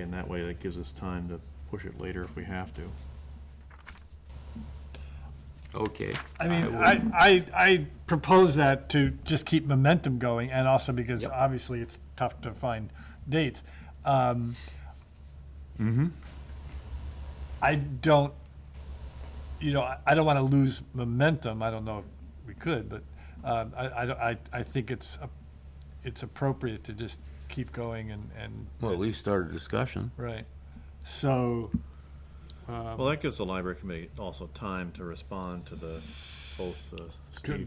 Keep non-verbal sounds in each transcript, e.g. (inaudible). And that way, that gives us time to push it later if we have to. Okay. I mean, will- I, I, I propose that to just keep momentum going, and also because Yep. obviously it's tough to find dates. Um, I don't, you know, I- I don't want to lose momentum, I don't know if we could, but um, I, I, don't- I, I think it's, a- it's appropriate to just keep going and, and, Well, at least start a discussion. right. So, Well, that gives the library committee also time to respond to the, both the could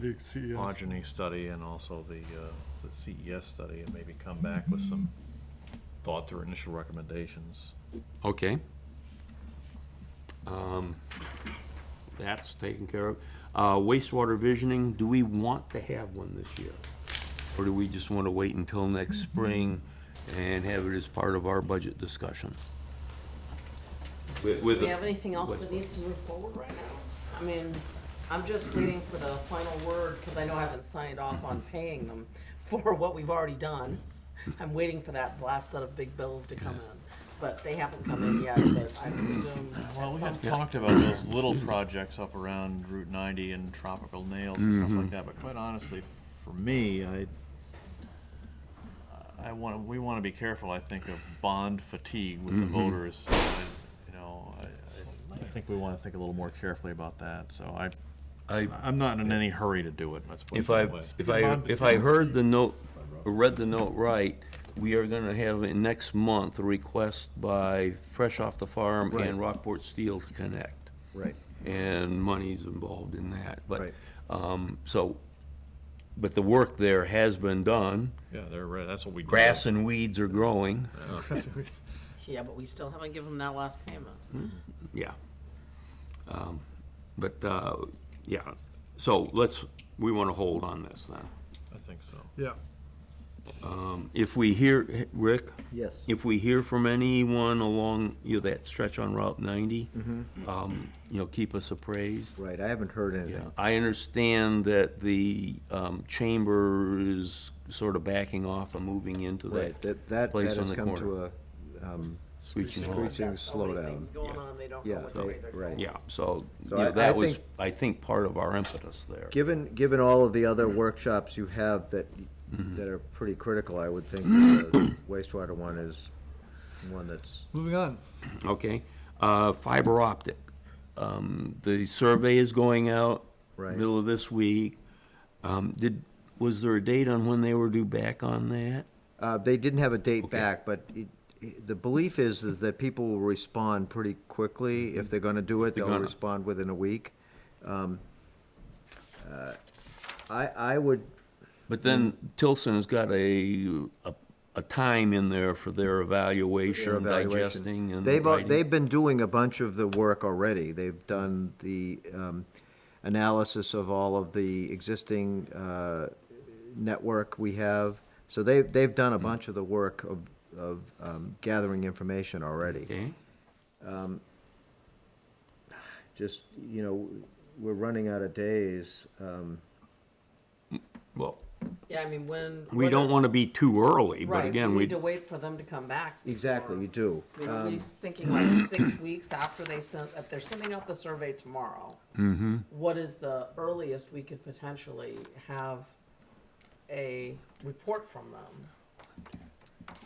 Steve the E CES Podgeny study and also the uh, the CES study, and maybe come back with some thoughts or initial recommendations. Okay. Um, That's taken care of. Uh, Wastewater visioning, do we want to have one this year? Or do we just want to wait until next spring and have it as part of our budget discussion? With, with, Do we have anything else What's- that needs to move forward right now? I mean, I'm just waiting for the final word, because I know I haven't signed off on paying them (laughs) for what we've already done. I'm waiting for that last set of big bills to come in, but they haven't come in yet, but I presume Well, at we some had point. talked about those little projects up around Route 90 and tropical nails and stuff Mm-hmm. like that, but quite honestly, for me, I, I want, to. we want to be careful, I think, of bond fatigue with Mm-hmm. the voters. So I- You know, I, I- I think we want to think a little more carefully about that, so I, I, I'm not in any hurry to do it, let's put it If I, that way. if I, if I heard the note, or read the note right, we are gonna have in next month a request by Fresh Off the Farm and Rockport Steel to connect. Right. And money's involved in that, but, Right. um, so, but the work there has been done. Yeah, they're, right, that's what we. do. Grass and weeds are growing, Yeah, but we still haven't given them that last payment. yeah. Um, But, uh, yeah, so let's, we wanna hold on this then. I think so. Yeah, If we hear, Rick? Yes. if we hear from anyone along, you know, that stretch on Route 90, um, you know, keep us appraised. Mm-hmm. Right, I haven't heard anything. I understand that the um, chamber is sort of backing off and moving into Right, that that, that Place that on has the come corner. to a, um, screeching hole. Screeching. Seems That's how many slowdown. Things going on, they don't know yeah, which they- way they're going. right. Yeah, so, you So know, I- I that was, think- I think, part of our impetus there. Given, given all of the other workshops you have that, Mm-hmm. that are pretty critical, I would (coughs) think the wastewater one is one that's, moving on. Okay, uh, fiber optic. Um, the survey is going out. Right. Middle of this week. Um, did, was there a date on when they were due back on that? uh, they didn't have a date back, but it- it- the belief is, is that people will respond pretty quickly. If they're gonna do it, they'll Mm-hmm. gonna. respond within a week. Um, uh, I, I would, But Mm. then Tilson's got a, a, a time in there for their their evaluation, evaluation. digesting and They've, al- writing. they've been doing a bunch of the work already. They've done the um, analysis of all of the existing uh, network we have. So they, they've Hmm. done a bunch of the work of, of um, gathering information already. Okay, Just, you know, we're running out of days. um, well, Yeah, I mean, when. we when- don't wanna be too early, but Right, again, we, Need to wait for them to come back. Exactly, before- you do. I mean, at least thinking (clears throat) like six weeks after they sent, if they're sending out the survey tomorrow, Mm-hmm. what is the earliest we could potentially have a report from them?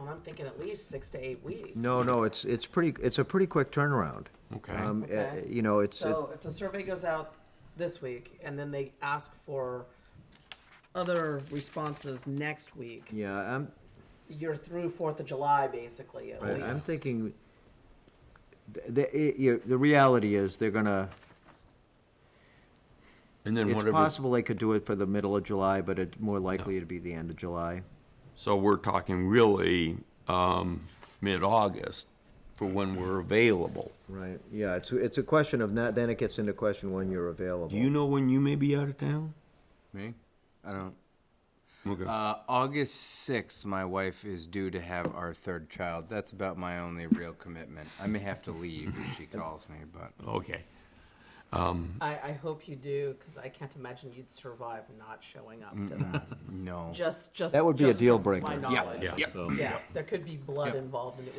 And I'm thinking at least six to eight weeks. No, no, it's, it's pretty, it's a pretty quick turnaround. Okay. Um, uh, Okay. You know, it's. it- So if the survey goes out this week and then they ask for other responses next week, Yeah, I'm, you're through Fourth of July basically at Right, least. I'm thinking, th- the, it- you- the reality is, they're gonna, and then it's whatever, possible they could do it for the middle of July, but it's more likely to be the end of July. so we're talking really, um, mid-August for when we're available. Right, yeah, it's, it's a question of, not- then it gets into question when you're available. Do you know when you may be out of town? Me? I don't. Okay, Uh, August 6th, my wife is due to have our third child. That's about my only real commitment. I may have to leave (laughs) if she calls me, but. okay, I, I hope you do, because I can't imagine you'd survive not showing up to that. No. Just, just. That would be a just deal from breaker. My Yeah, knowledge. yeah. So- Yeah, there could be blood involved and it